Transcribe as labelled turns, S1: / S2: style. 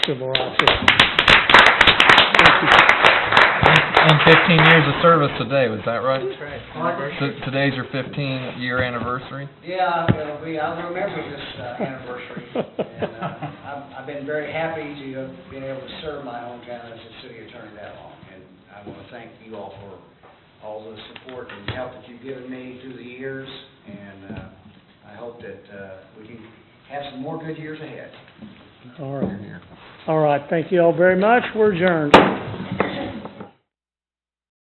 S1: civil rights. Thank you.
S2: And fifteen years of service today, was that right?
S3: Margaret?
S2: T- Today's your fifteen-year anniversary?
S3: Yeah, uh, we, I remember this uh, anniversary, and, uh, I've, I've been very happy to have been able to serve my hometown as a city attorney that long, and I want to thank you all for all the support and help that you've given me through the years, and, uh, I hope that, uh, we can have some more good years ahead.
S1: All right. All right, thank you all very much. We're adjourned.